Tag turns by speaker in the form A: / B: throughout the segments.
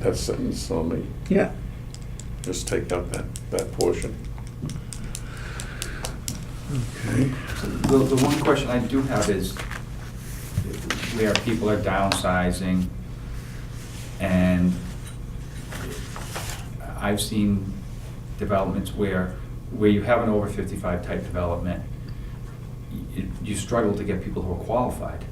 A: that sentence on me.
B: Yeah.
A: Just take out that, that portion. Okay.
C: The, the one question I do have is where people are downsizing and I've seen developments where, where you have an over fifty-five type development, you, you struggle to get people who are qualified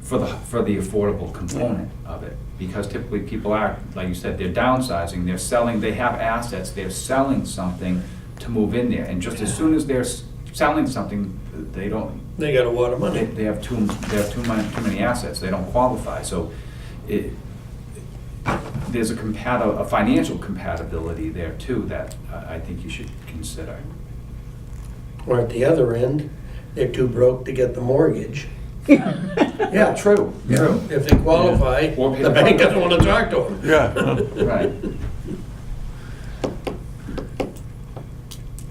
C: for the, for the affordable component of it. Because typically people are, like you said, they're downsizing, they're selling, they have assets, they're selling something to move in there. And just as soon as they're s- selling something, they don't,
D: They got a lot of
C: they,
D: money.
C: they have too, they have too many, too many assets, they don't qualify, so it, there's a compati, a financial compatibility there too that uh, I I think you should consider.
D: Or at the other end, they're too broke to get the mortgage. Yeah,
C: True, true.
D: If they qualify,
C: Or pay
D: the
C: the
D: bank
C: bank.
D: doesn't want to talk to them.
A: Yeah.
C: Right.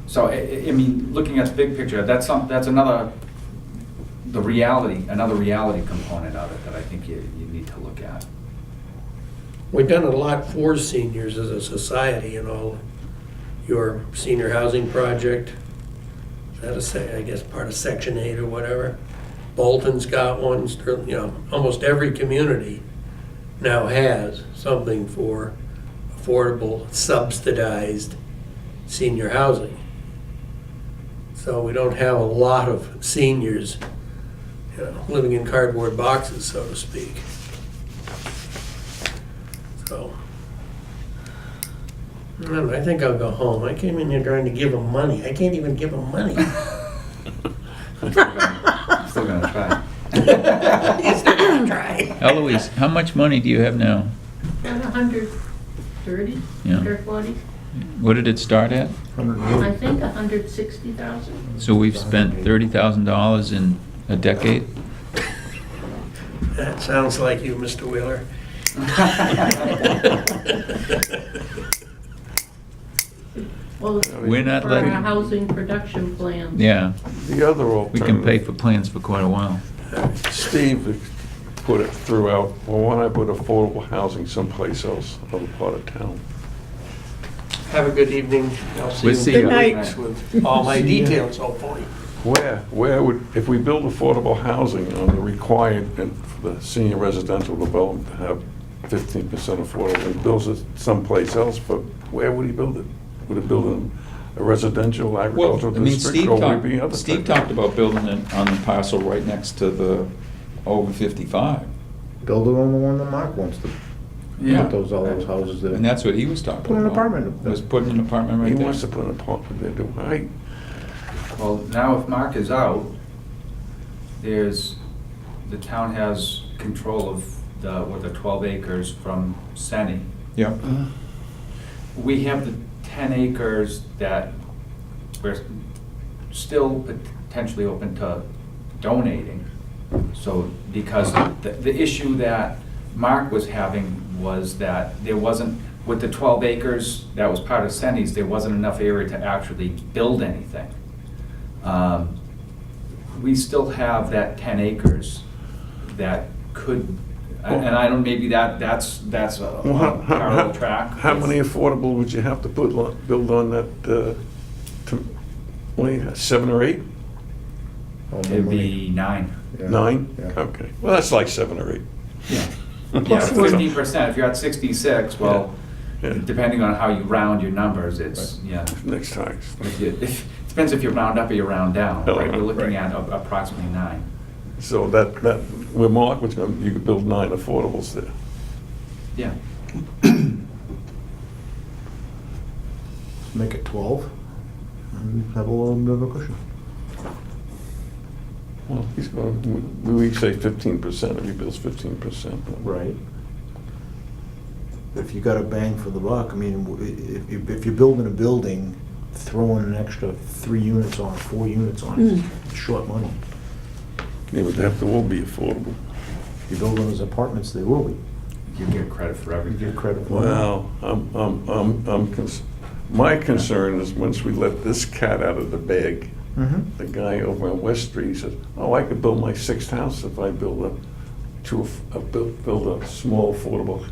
C: So, I- I, I mean, looking at the big picture, that's some, that's another, the reality, another reality component of it that I think you, you need to look at.
D: We've done a lot for seniors as a society and all. Your senior housing project, is that a say, I guess, part of Section 8 or whatever. Bolton's got one, Sterling, you know, almost every community now has something for affordable subsidized senior housing. So we don't have a lot of seniors, you know, living in cardboard boxes, so to speak. So. I don't know, I think I'll go home. I came in here trying to give them money. I can't even give them money.
C: I'm still gonna- I'm Still gonna try.
E: Eloise, how much money do you have now?
F: About a hundred thirty,
E: Yeah.
F: or forty,
E: What did it start at?
F: I think a hundred sixty thousand.
E: So we've spent thirty thousand dollars in a decade?
D: That sounds like you, Mr. Wheeler.
F: Well,
E: We're not
F: for
E: letting-
F: our housing production plan.
E: Yeah,
A: The other
E: we can pay
A: alternative,
E: for plans for quite a while.
A: Steve put it throughout, well, why not put affordable housing someplace else, another part of town?
D: Have a good evening. I'll see
E: We'll
D: you.
E: see ya. Good
B: night.
D: With all my details, hopefully.
A: Where, where would, if we build affordable housing on the required, and the senior residential development to have fifteen percent affordable, he builds it someplace else, but where would he build it? Would he build in a residential
G: Well, I
A: agricultural
G: mean,
A: district,
G: Steve
A: or would it be
G: talked,
A: other?
G: Steve
A: thing?
G: talked about building it on the parcel right next to the over fifty-five.
H: Build it on the one that Mark wants to
G: Yeah.
H: put those, all those houses there.
G: And that's what he was talking about.
H: Put an apartment up there.
G: Was putting an apartment right
A: He
G: there.
A: wants to put an apartment there, do I?
C: Well, now if Mark is out, there's, the town has control of the, what, the twelve acres from Senni.
G: Yeah.
C: We have the ten acres that we're still potentially open to donating. So, because the, the issue that Mark was having was that there wasn't, with the twelve acres that was part of Senni's, there wasn't enough area to actually build anything. Um, We still have that ten acres that could, and and I don't, maybe that, that's, that's a
A: Well, how-
C: a
A: how-
C: parallel
A: how-
C: track.
A: How many affordable would you have to put, on- build on that, uh, to- what do you have, seven or eight?
H: All the
C: It'd
H: Oh, money.
C: be nine.
H: Yeah.
A: Nine?
H: Yeah.
A: Okay, well, that's like seven or eight.
C: Yeah. Yeah,
B: Plus we're-
C: fifteen percent, if you're at sixty-six, well,
A: Yeah.
C: depending on how you round your numbers, it's, yeah.
A: Next time.
C: If you- if- Depends if you round up or you round down,
A: Oh,
C: right? We're
A: right.
C: looking at a- approximately nine.
A: So that, that, where Mark was going, you could build nine affordables there.
C: Yeah.
H: Make it twelve, and have a little bit of a cushion.
A: Well, he's going, we we say fifteen percent, if he builds fifteen percent.
H: Right. If you got a bang for the buck, I mean, w- i- if, you- if you're building a building, throwing an extra three units on, four units on, it, it's short money.
A: It would have to all be affordable.
H: If you build those apartments, they will be.
C: You get credit for
H: You
C: everything.
H: get credit for it.
A: Well, I'm, I'm, I'm, I'm, cons- my concern is once we let this cat out of the bag,
H: Mhm.
A: the guy over on West Street, he says, oh, I could build my sixth house if I build a, to, a- a- build build a small affordable